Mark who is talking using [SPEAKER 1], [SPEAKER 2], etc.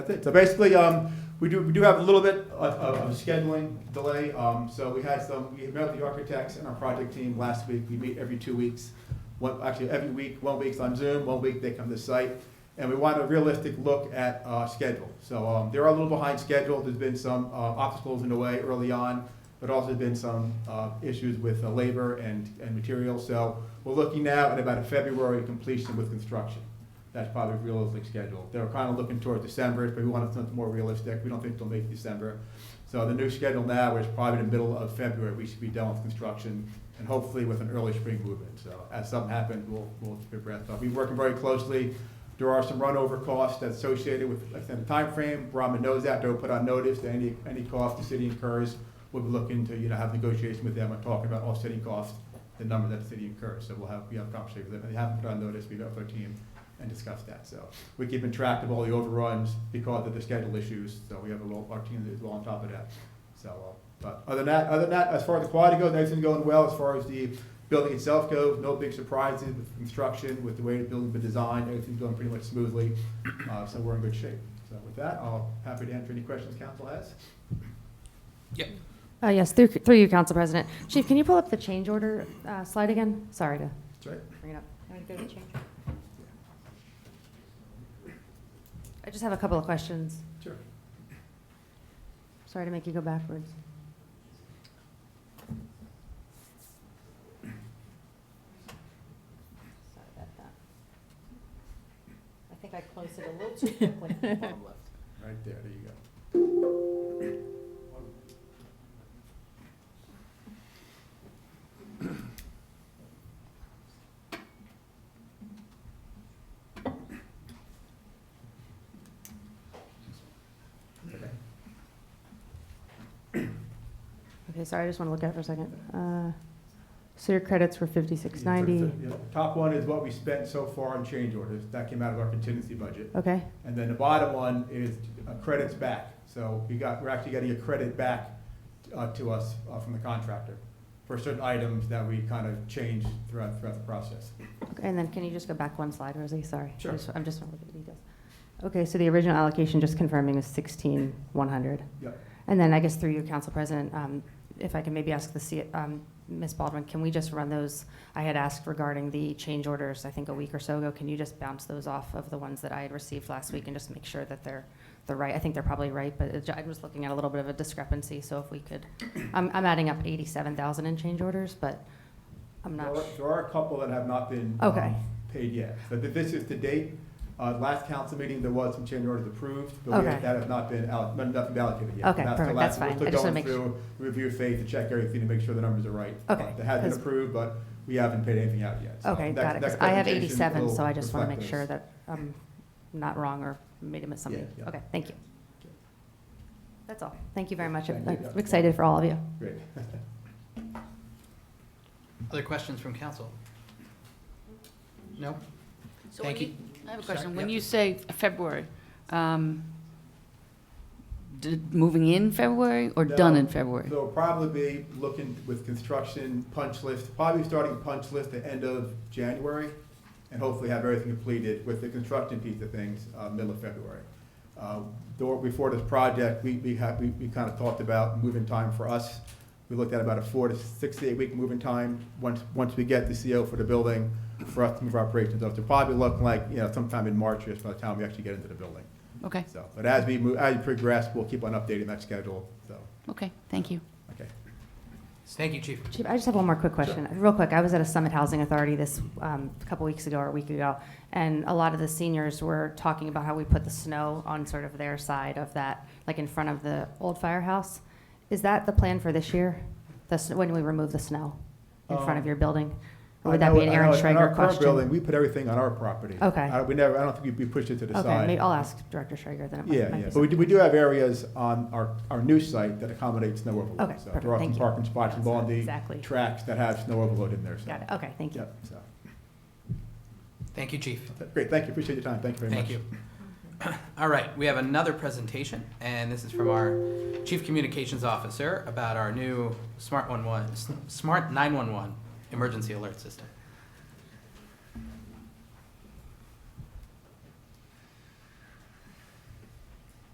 [SPEAKER 1] it. So basically, um, we do, we do have a little bit of, of of a scheduling delay, um, so we had some, we met with the architects and our project team last week, we meet every two weeks. One, actually, every week, one week's on Zoom, one week they come to site, and we want a realistic look at, uh, schedule. So, um, they're a little behind schedule, there's been some, uh, obstacles in the way early on, but also been some, uh, issues with uh, labor and, and materials, so we're looking now at about a February completion with construction. That's probably a realistic schedule. They were kind of looking toward December, but we wanted something more realistic. We don't think they'll make December. So the new schedule now is probably the middle of February, we should be done with construction and hopefully with an early spring movement. So as something happens, we'll, we'll keep your breath. But we're working very closely. There are some runover costs that's associated with extended timeframe. Brahma knows that, they'll put on notice that any, any cost the city incurs, we'll be looking to, you know, have negotiation with them and talking about offsetting costs, the number that the city incurs. So we'll have, we have a conversation with them. They haven't put on notice, we've got our team and discuss that. So we're keeping track of all the overruns because of the schedule issues, so we have a little, our team is well on top of that. So, uh, but other than that, other than that, as far as the quality goes, everything's going well. As far as the building itself goes, no big surprises with construction, with the way the building's been designed, everything's going pretty much smoothly. Uh, so we're in good shape. So with that, I'll happy to answer any questions council has.
[SPEAKER 2] Uh, Yes, through through you, Council President. Chief, can you pull up the change order uh, slide again? Sorry to
[SPEAKER 1] That's right.
[SPEAKER 2] bring it up. I just have a couple of questions.
[SPEAKER 1] Sure.
[SPEAKER 2] Sorry to make you go backwards.
[SPEAKER 3] Sorry about that. I think I closed it a little too quickly.
[SPEAKER 1] Right there, there you go.
[SPEAKER 2] Okay, sorry, I just want to look at it for a second. Uh, So your credits were 5690,
[SPEAKER 1] Yeah, Top one is what we spent so far on change orders. That came out of our contingency budget.
[SPEAKER 2] okay?
[SPEAKER 1] And then the bottom one is uh, credits back. So we got, we're actually getting a credit back uh, to us uh, from the contractor for certain items that we kind of changed throughout, throughout the process.
[SPEAKER 2] Okay, And then can you just go back one slide, Rosie? Sorry. I
[SPEAKER 1] Sure.
[SPEAKER 2] just- I'm just want to look at the details. Okay, so the original allocation, just confirming, is 16,100.
[SPEAKER 1] Yep.
[SPEAKER 2] And then I guess through you, Council President, um, if I can maybe ask the, C- um, Ms. Baldwin, can we just run those? I had asked regarding the change orders, I think a week or so ago. Can you just bounce those off of the ones that I had received last week and just make sure that they're, they're right? I think they're probably right, but it- I was looking at a little bit of a discrepancy, so if we could, I'm, I'm adding up 87,000 in change orders, but I'm
[SPEAKER 1] There
[SPEAKER 2] not.
[SPEAKER 1] are-
[SPEAKER 2] su-
[SPEAKER 1] There are a couple that have not been.
[SPEAKER 2] Okay.
[SPEAKER 1] um, Paid yet. So th- this is to date. Uh, last council meeting, there was some change orders approved, but we
[SPEAKER 2] Okay.
[SPEAKER 1] have- that have not been, alloc- not enough allocated yet.
[SPEAKER 2] Okay,
[SPEAKER 1] the
[SPEAKER 2] perfect.
[SPEAKER 1] last-
[SPEAKER 2] That's fine.
[SPEAKER 1] We're
[SPEAKER 2] I
[SPEAKER 1] still
[SPEAKER 2] just wanna
[SPEAKER 1] going
[SPEAKER 2] make
[SPEAKER 1] through review phase to check everything to make sure the numbers are right. Uh,
[SPEAKER 2] Okay,
[SPEAKER 1] That has been
[SPEAKER 2] 'cause-
[SPEAKER 1] approved, but we haven't paid anything out yet. So
[SPEAKER 2] Okay,
[SPEAKER 1] that-
[SPEAKER 2] got it,
[SPEAKER 1] that
[SPEAKER 2] 'cause I have
[SPEAKER 1] presentation
[SPEAKER 2] 87,
[SPEAKER 1] will
[SPEAKER 2] so I just want to
[SPEAKER 1] reflect
[SPEAKER 2] make
[SPEAKER 1] those.
[SPEAKER 2] sure that I'm not wrong or made a miss something.
[SPEAKER 1] yeah.
[SPEAKER 2] Okay, thank you. That's all. Thank you very much.
[SPEAKER 1] Thank
[SPEAKER 2] I'm
[SPEAKER 1] you.
[SPEAKER 2] I'm excited for all of you.
[SPEAKER 1] Great.
[SPEAKER 4] Other questions from council? No?
[SPEAKER 5] So when
[SPEAKER 4] Thank you.
[SPEAKER 5] I have a
[SPEAKER 4] Sorry,
[SPEAKER 5] question. When
[SPEAKER 4] yeah.
[SPEAKER 5] you say February, um, d- moving in February or done in
[SPEAKER 1] No.
[SPEAKER 5] February?
[SPEAKER 1] So we'll probably be looking with construction punch list, probably starting punch list the end of January, and hopefully have everything completed with the construction piece of things, uh, middle of February. Uh, door- Before this project, we, we had, we, we kind of talked about moving time for us. We looked at about a four to six to eight week moving time, once, once we get the CO for the building, for us to move our operations up. So probably looking like, you know, sometime in March, just by the time we actually get into the building.
[SPEAKER 5] Okay,
[SPEAKER 1] So, but as we move, as we progress, we'll keep on updating that schedule, so,
[SPEAKER 5] okay, thank you.
[SPEAKER 1] okay.
[SPEAKER 4] Thank you, chief.
[SPEAKER 2] Chief, I just have one more quick question. Real quick, I was at a Summit Housing Authority this, um, a couple weeks ago or a week ago, and a lot of the seniors were talking about how we put the snow on sort of their side of that, like in front of the old firehouse. Is that the plan for this year? The, s- when we remove the snow in front of
[SPEAKER 1] Um,
[SPEAKER 2] your building? Or
[SPEAKER 1] I
[SPEAKER 2] would that
[SPEAKER 1] know-
[SPEAKER 2] be an
[SPEAKER 1] I
[SPEAKER 2] Aaron
[SPEAKER 1] know in our
[SPEAKER 2] Schrager
[SPEAKER 1] current
[SPEAKER 2] question?
[SPEAKER 1] building, We put everything on our property.
[SPEAKER 2] Okay.
[SPEAKER 1] I don't- We never, I don't think we we pushed it to the
[SPEAKER 2] Okay,
[SPEAKER 1] side.
[SPEAKER 2] maybe I'll ask Director Schrager then. it might-
[SPEAKER 1] Yeah, yeah,
[SPEAKER 2] might
[SPEAKER 1] but
[SPEAKER 2] be
[SPEAKER 1] we
[SPEAKER 2] something.
[SPEAKER 1] do, we do have areas on our, our new site that accommodate snow overload.
[SPEAKER 2] Okay,
[SPEAKER 1] So
[SPEAKER 2] perfect,
[SPEAKER 1] There are some
[SPEAKER 2] thank you.
[SPEAKER 1] parking spots
[SPEAKER 2] That's
[SPEAKER 1] along the
[SPEAKER 2] exactly-
[SPEAKER 1] tracks that have snow overload in there, so.
[SPEAKER 2] Got it, okay, thank you.
[SPEAKER 1] Yep, so,
[SPEAKER 4] Thank you, chief.
[SPEAKER 1] great, thank you, appreciate your time, thank you very much.
[SPEAKER 4] Thank you. All right, we have another presentation, and this is from our Chief Communications Officer about our new Smart 11, Smart 911 emergency alert system.